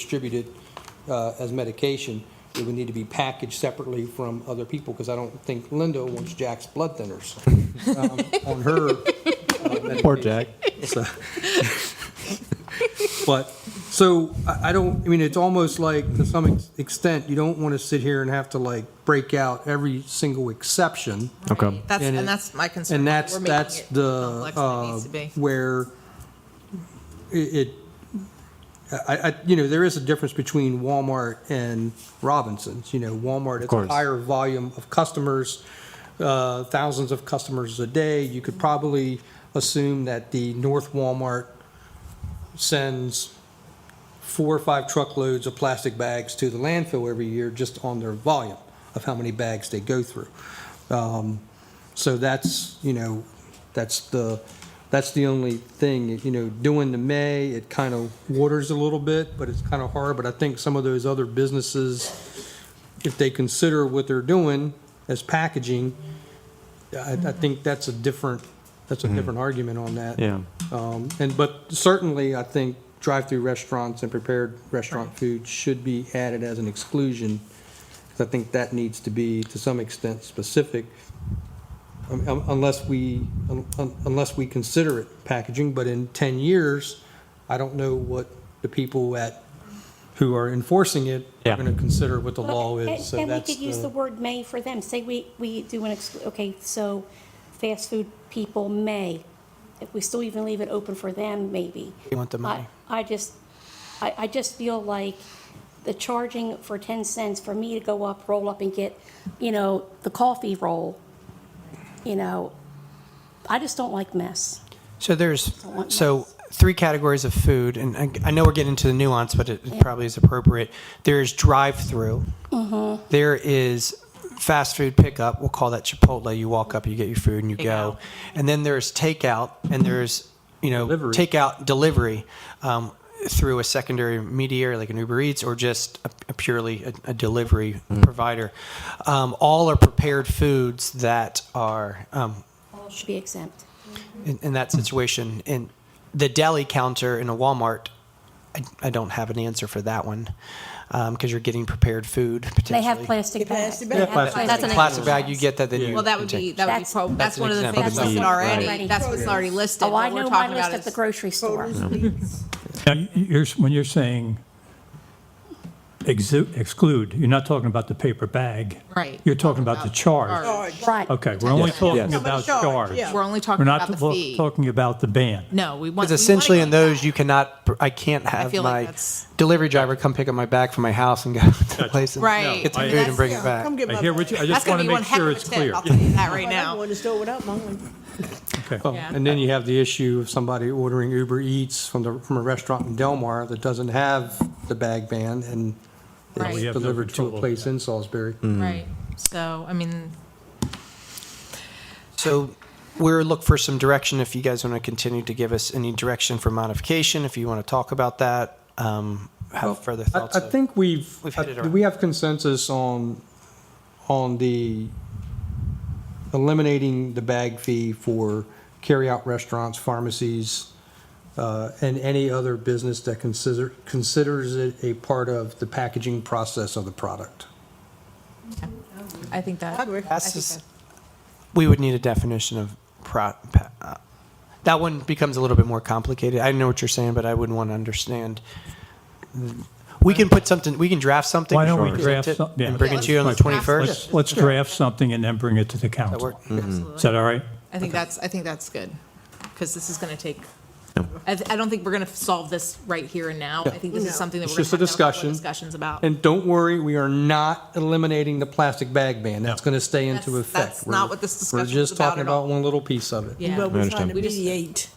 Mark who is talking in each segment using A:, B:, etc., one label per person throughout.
A: distributed uh, as medication, it would need to be packaged separately from other people, because I don't think Linda wants Jack's blood thinners um, on her. uh,
B: Poor
A: medication.
B: Jack.
A: So- But, so, I, I don't, I mean, it's almost like, to some ex- extent, you don't want to sit here and have to like break out every single exception.
B: Okay.
C: That's,
A: And
C: and,
A: it-
C: that's my concern.
A: And
C: We're
A: that's,
C: making
A: that's
C: it
A: the,
C: complex than it
A: uh,
C: needs to be.
A: where it, it- I, I, you know, there is a difference between Walmart and Robinsons, you know, Walmart, it's a
B: course.
A: higher volume of customers, uh, thousands of customers a day, you could probably assume that the North Walmart sends four or five truckloads of plastic bags to the landfill every year just on their volume of how many bags they go through. Um, So that's, you know, that's the, that's the only thing, you know, doing the May, it kind of waters a little bit, but it's kind of hard. But I think some of those other businesses, if they consider what they're doing as packaging, I, I think that's a different, that's a different argument on that.
B: Yeah.
A: Um, And, but certainly, I think drive-through restaurants and prepared restaurant food should be added as an exclusion, because I think that needs to be, to some extent, specific, um, um, unless we, un- un- unless we consider it packaging, but in 10 years, I don't know what the people at, who are enforcing it are
B: Yeah.
A: going to consider what the law
D: Well,
A: is, so
D: and- And
A: that's
D: we could use the
A: the,
D: word "may" for them. Say we, we do an, ex- okay, so fast food people may. If we still even leave it open for them, maybe.
E: You want the money.
D: I I just, I, I just feel like the charging for 10 cents for me to go up, roll up and get, you know, the coffee roll, you know, I just don't like mess.
E: So there's,
D: want
E: so three categories of food, and I, I know we're getting into the nuance, but it, it probably is appropriate. There is drive-through. There is fast food pickup. We'll call that Chipotle. You walk up, you get your food, and you go.
C: Takeout.
E: And then there's takeout, and there's you know
A: Delivery.
E: takeout delivery um, through a secondary mediator like an Uber Eats or just a, a purely a, a delivery provider. Um, all are prepared foods that are um,
D: All should be exempt.
E: in, in that situation. In the deli counter in a Walmart, I, I don't have an answer for that one because you're getting prepared food potentially.
D: They have plastic bags.
C: plastic
D: They
C: bags.
D: have
C: Plastic
D: plastic
C: bags.
D: bags.
E: plastic bag. You get that, then you
C: Well, that would be, that would be,
D: That's-
C: prob-
E: that's
C: that's
E: an
C: one of the
E: example.
C: things
D: That's
C: listed
D: an
C: already.
D: example.
C: That's what's already listed.
D: Oh, I
C: What we're
D: know my
C: talking
D: list
C: about
D: at the
C: is-
D: grocery store.
F: Now, you- you're, when you're saying exu- exclude, you're not talking about the paper bag.
C: Right.
F: You're talking about the charge.
C: Charge.
D: Right.
F: Okay, we're only
B: Yes.
F: talking
B: Yes.
F: about charge.
C: We're only
F: We're
C: talking
F: not
C: about the
F: lo-
C: fee.
F: talking about the ban.
C: No, we want.
E: Because
C: we wanna
E: essentially,
C: go
E: in those,
C: back.
E: you cannot. pr- I can't have
C: feel like
E: my
C: that's-
E: delivery driver come pick up my bag from my house and go to the place and
C: Right.
E: get some
F: I-
E: food and bring it back.
G: Come get
F: I
G: my
F: hear what you, I
C: That's
F: just
C: going
F: want
C: to
F: to
C: be one heck
F: make
C: of
F: sure
C: a
F: it's
C: tip.
F: clear.
C: I'll tell you that right
G: I don't
C: now.
G: want to store without mine.
F: Okay.
C: Yeah.
A: and then you have the issue of somebody ordering Uber Eats from the, from a restaurant in Delmar that doesn't have the bag ban, and
C: Right. We
A: it's
F: have no
A: delivered to
F: control
A: a
F: of
A: place
F: that.
A: in
E: Hmm.
A: Salisbury.
D: Mm.
C: Right. So, I mean,
E: So we're look for some direction if you guys want to continue to give us any direction for modification. If you want to talk about that, um, have further
A: I-
E: thoughts.
A: I
E: of-
A: think we've,
E: We've
A: uh,
E: hit it
A: do
E: already.
A: we have consensus on, on the eliminating the bag fee for carryout restaurants, pharmacies, uh, and any other business that consider, considers it a part of the packaging process of the product?
C: I think that.
G: I'd work.
C: I
E: That's
C: think
E: just-
C: that-
E: we would need a definition of pro. Pa, uh, that one becomes a little bit more complicated. I know what you're saying, but I wouldn't want to understand. We can put something. We can draft something.
F: Why don't we
E: and present
F: draft
E: it
F: something?
E: and bring it to you on the 21st?
F: Let's, let's draft something and then bring it to the
E: That
F: council.
E: work?
D: Mm.
F: Is that all right?
C: I think that's, I think that's good, because this is going to take, I, th- I don't think we're going to solve this right here and now. I think this is something that
A: It's
C: we're going
A: just a
C: to have to have
A: discussion.
C: more discussions about.
A: And don't worry, we are not eliminating the plastic bag ban. That's going to stay into
C: That's-
A: effect.
C: that's
A: We're-
C: not what this discussion
A: We're
C: is
A: just
C: about
A: talking
C: at all.
A: about one little piece of it.
C: Yeah.
G: But we're trying
B: understand.
G: to mediate.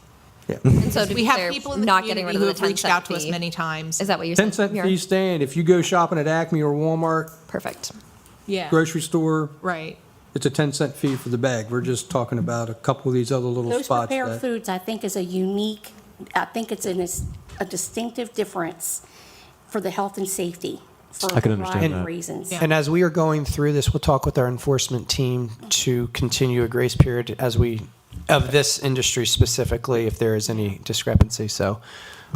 H: And so to
C: We
H: be
C: have
H: clear,
C: people in the
H: not getting
C: community
H: rid
C: who
H: of
C: have
H: the 10
C: reached
H: cent
C: out to us
H: fee.
C: many times.
H: Is that what you're saying?
A: 10 cent
H: Mira?
A: fee stand, if you go shopping at Acme or Walmart,
H: Perfect.
C: Yeah.
A: grocery store,
C: Right.
A: it's a 10 cent fee for the bag. We're just talking about a couple of these other little
D: Those
A: spots.
D: prepared
A: that-
D: foods, I think, is a unique, I think it's an, is a distinctive difference for the health and safety. for
B: I can
D: a
B: understand
D: variety of
B: that.
D: Reasons.
E: And as we are going through this, we'll talk with our enforcement team to continue a grace period as we, of this industry specifically, if there is any discrepancy. So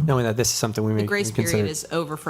E: knowing that this is something we may
C: The grace
E: consider.
C: period is over for